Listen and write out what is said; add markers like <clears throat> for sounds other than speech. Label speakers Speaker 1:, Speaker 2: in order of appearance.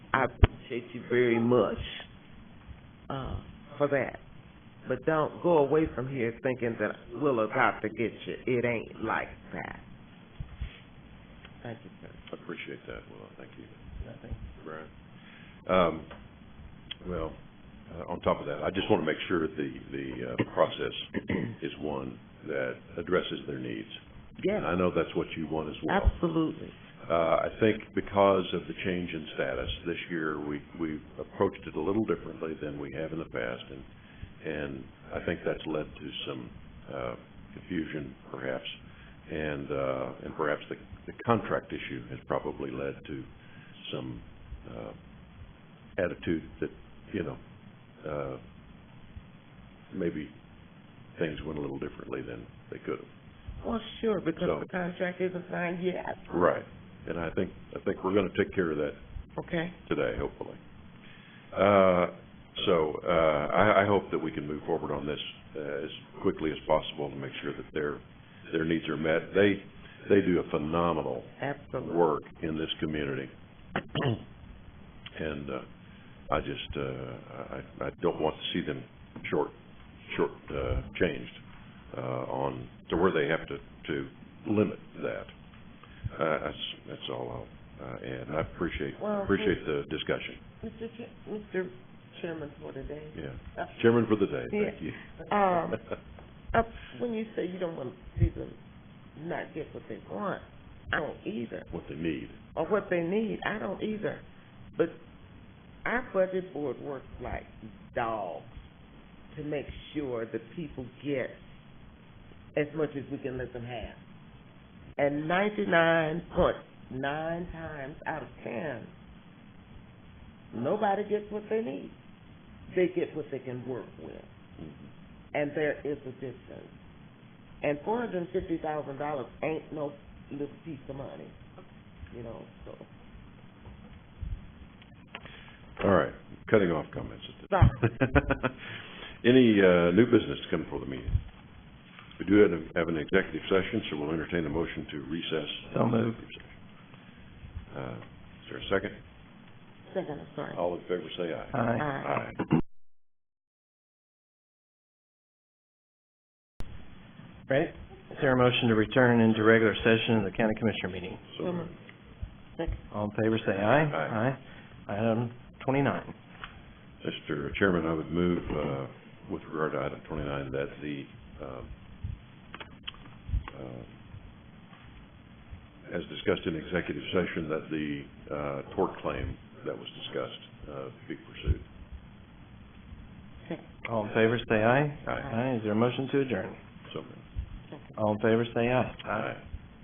Speaker 1: I appreciate you very much, uh, for that. But don't go away from here thinking that we'll about to get you. It ain't like that. Thank you, sir.
Speaker 2: I appreciate that, Well, thank you. Brian. Um, well, uh, on top of that, I just want to make sure that the, the, uh, process
Speaker 1: <clears throat>
Speaker 2: is one that addresses their needs. And
Speaker 1: Yes,
Speaker 2: I know that's what you want as well.
Speaker 1: absolutely.
Speaker 2: Uh, I think because of the change in status this year, we, we've approached it a little differently than we have in the past, and, and I think that's led to some, uh, confusion perhaps. And, uh, and perhaps the, the contract issue has probably led to some, uh, attitude that, you know, uh, maybe things went a little differently than they could have.
Speaker 1: Well, sure,
Speaker 2: So-
Speaker 1: because the contract isn't signed yet,
Speaker 2: Right. And I think, I think we're gonna take care of that
Speaker 1: okay?
Speaker 2: today, hopefully. Uh, So, uh, I, I hope that we can move forward on this uh, as quickly as possible to make sure that their, their needs are met. They, they do a phenomenal
Speaker 1: Absolutely.
Speaker 2: work in this community. And uh, I just, uh, I, I don't want to see them short, short uh, changed uh, on, to where they have to, to limit that. Uh, That's, that's all I'll uh, add. And I appreciate,
Speaker 1: Well,
Speaker 2: appreciate the discussion,
Speaker 1: Mr. Ch- Mr. Chairman for today.
Speaker 2: yeah. Chairman for the day, thank you.
Speaker 1: Um, uh, <laughs> when you say you don't want to see them not get what they want, I don't either,
Speaker 2: <laughs> What they need.
Speaker 1: or what they need, I don't either. But our budget board works like dogs to make sure that people get as much as we can let them have. And ninety-nine point nine times out of ten, nobody gets what they need. They get what they can work with and there is a difference. And four hundred and fifty thousand dollars ain't no little piece of money, you know, so,
Speaker 2: All right, cutting off comments at this
Speaker 1: Sorry.
Speaker 2: <laughs> Any uh, new business to come before the meeting? We do have- have an executive session, so we'll entertain a motion to recess.
Speaker 3: So moved.
Speaker 2: Uh, Is there a second?
Speaker 1: second, I'm sorry.
Speaker 2: All in favor, say aye.
Speaker 3: Aye.
Speaker 1: Aye.
Speaker 3: Right? Is there a motion to return into regular session of the county commissioner meeting?
Speaker 2: So
Speaker 1: So
Speaker 2: moved.
Speaker 1: moved. Second.
Speaker 3: All in favor, say aye.
Speaker 2: Aye.
Speaker 3: Aye. Item twenty-nine.
Speaker 2: Mr. Chairman, I would move, uh, with regard to item twenty-nine, that the, um, uh, as discussed in executive session, that the, uh, tort claim that was discussed, uh, be pursued.
Speaker 3: All in favor, say aye.
Speaker 2: Aye.
Speaker 3: Aye. Is there a motion to adjourn?
Speaker 2: So moved.
Speaker 3: All in favor, say aye.
Speaker 2: Aye.